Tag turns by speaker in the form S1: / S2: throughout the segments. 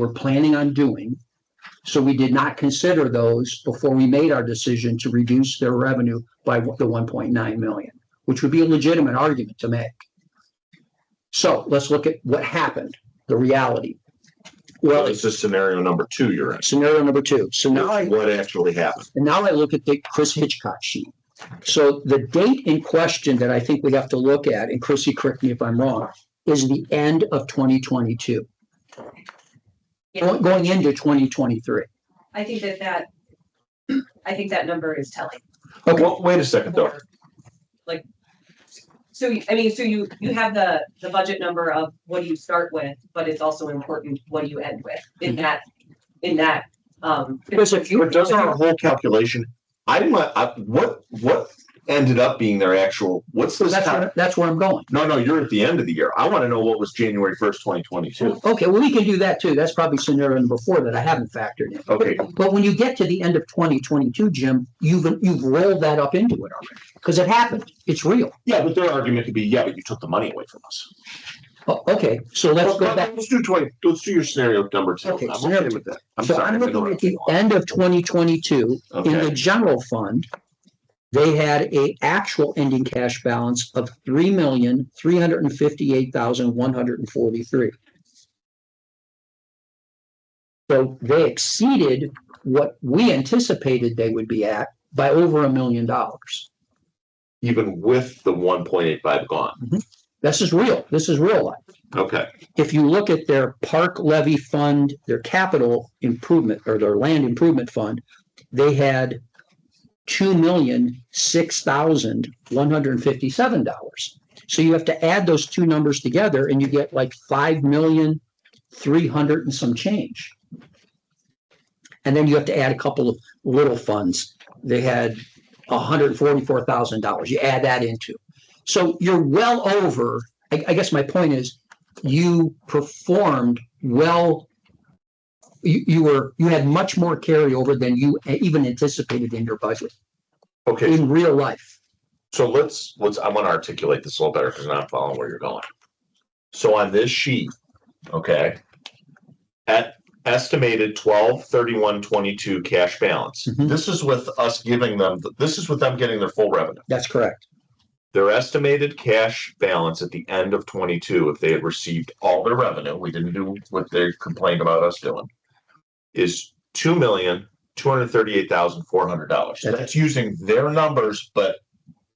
S1: were planning on doing. So we did not consider those before we made our decision to reduce their revenue by the one point nine million, which would be a legitimate argument to make. So let's look at what happened, the reality.
S2: Well,
S1: Well,
S2: it's just scenario number two you're in.
S1: scenario number two. So now I.
S2: What actually happened?
S1: And now I look at the Chris Hitchcock sheet. So the date in question that I think we have to look at, and Chrissy, correct me if I'm wrong, is the end of twenty twenty-two.
S3: Yeah.
S1: Going into twenty twenty-three.
S3: I think that that, I think that number is telling.
S1: Okay,
S2: Well, wait a second though.
S3: for, Like, so, you- I mean, so you, you have the, the budget number of what do you start with, but it's also important, what do you end with in that, in that, um.
S1: Because if you-
S2: But doesn't our whole calculation, I didn't, let- I, what, what ended up being their actual, what's this?
S1: that's
S2: time-
S1: where, that's where I'm going.
S2: No, no, you're at the end of the year. I want to know what was January first, twenty twenty-two.
S1: Okay, well, we can do that too. That's probably scenario number four that I haven't factored in.
S2: Okay,
S1: But when you get to the end of twenty twenty-two, Jim, you've, you've rolled that up into it already, because it happened. It's real.
S2: yeah, but their argument could be, yeah, but you took the money away from us.
S1: O- Oh, Okay, so let's go
S2: Well,
S1: back.
S2: Let's do twenty, let's do your scenario number two.
S1: Okay,
S2: I'm
S1: scenario
S2: okay with that. I'm
S1: So
S2: sorry.
S1: I'm
S2: I've been
S1: looking at the
S2: around.
S1: end of twenty twenty-two, In the
S2: Okay,
S1: general fund, they had a actual ending cash balance of three million, three hundred and fifty-eight thousand, one hundred and forty-three. So they exceeded what we anticipated they would be at by over a million dollars.
S2: even with the one point eight five gone.
S1: This is real. This is real life.
S2: Okay,
S1: if you look at their park levy fund, their capital improvement or their land improvement fund, they had two million, six thousand, one hundred and fifty-seven dollars. So you have to add those two numbers together and you get like five million, three hundred and some change. And then you have to add a couple of little funds. They had hundred and forty-four thousand dollars. You add that into. So you're well over, I, I guess my point is, you performed well. You, you were, you had much more carryover than you even anticipated in your budget,
S2: okay,
S1: in real life.
S2: So let's, let's, I want to articulate this a little better because I'm not following where you're going. So on this sheet, okay, at estimated twelve thirty-one twenty-two cash balance.
S1: Mhm.
S2: This is with us giving them, this is with them getting their full revenue.
S1: That's correct.
S2: Their estimated cash balance at the end of twenty-two, if they had received all their revenue, we didn't do what they complained about us doing, is two million, two hundred thirty-eight thousand, four hundred dollars.
S1: That's-
S2: That's using their numbers, but,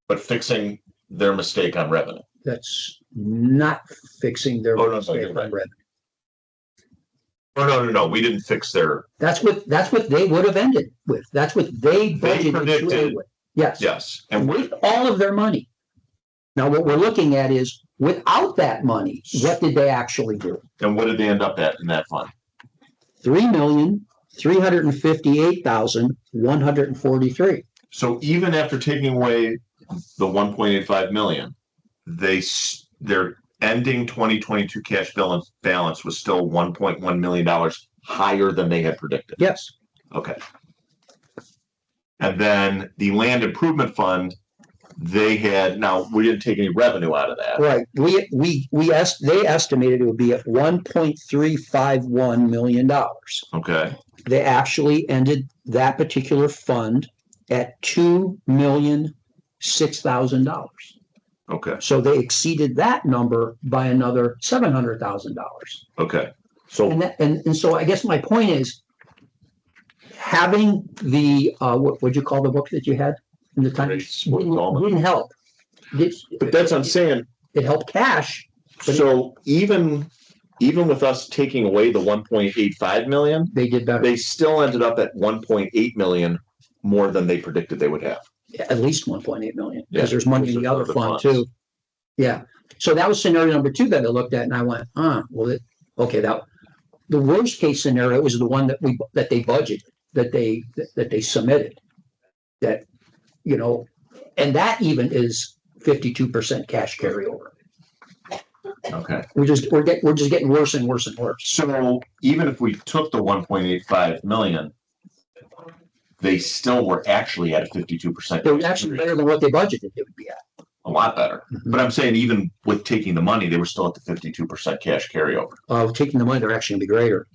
S2: but fixing their mistake on revenue.
S1: That's not fixing their.
S2: Oh, no, no, you're right.
S1: revenue.
S2: Oh, no, no, no, we didn't fix their,
S1: That's what, that's what they would have ended with. That's what they budgeted to end
S2: predicted-
S1: with. Yes.
S2: yes, and
S1: And
S2: we,
S1: with all of their money. Now, what we're looking at is without that money, what did they actually do?
S2: and what did they end up at in that fund?
S1: Three million, three hundred and fifty-eight thousand, one hundred and forty-three.
S2: So even after taking away the one point eight five million, they, s- their ending twenty twenty-two cash balance, balance was still one point one million dollars higher than they had predicted.
S1: Yes.
S2: Okay. And then the land improvement fund, they had, now, we didn't take any revenue out of that.
S1: Right, we, we, we asked, they estimated it would be at one point three five one million dollars.
S2: Okay,
S1: They actually ended that particular fund at two million, six thousand dollars.
S2: okay,
S1: So they exceeded that number by another seven hundred thousand dollars.
S2: okay. So
S1: And that, and, and so I guess my point is having the, uh, what, what'd you call the book that you had in the time?
S2: Grace, what do you call it?
S1: Didn't help. It,
S2: But that's what I'm saying.
S1: it helped cash,
S2: So even, even with us taking away the one point eight five million,
S1: they did better,
S2: they still ended up at one point eight million more than they predicted they would have.
S1: at least one point eight million,
S2: Yeah.
S1: because there's money in the other fund too. Yeah, so that was scenario number two that I looked at and I went, huh, well, it, okay, that, the worst case scenario was the one that we, that they budgeted, that they, that they submitted. That, you know, and that even is fifty-two percent cash carryover.
S2: Okay.
S1: We're just, we're getting, we're just getting worse and worse and worse.
S2: So even if we took the one point eight five million, they still were actually at a fifty-two percent.
S1: It was actually better than what they budgeted it would be at.
S2: A lot better. But I'm saying even with taking the money, they were still at the fifty-two percent cash carryover.
S1: Oh, Uh, taking the money, they're actually gonna be greater.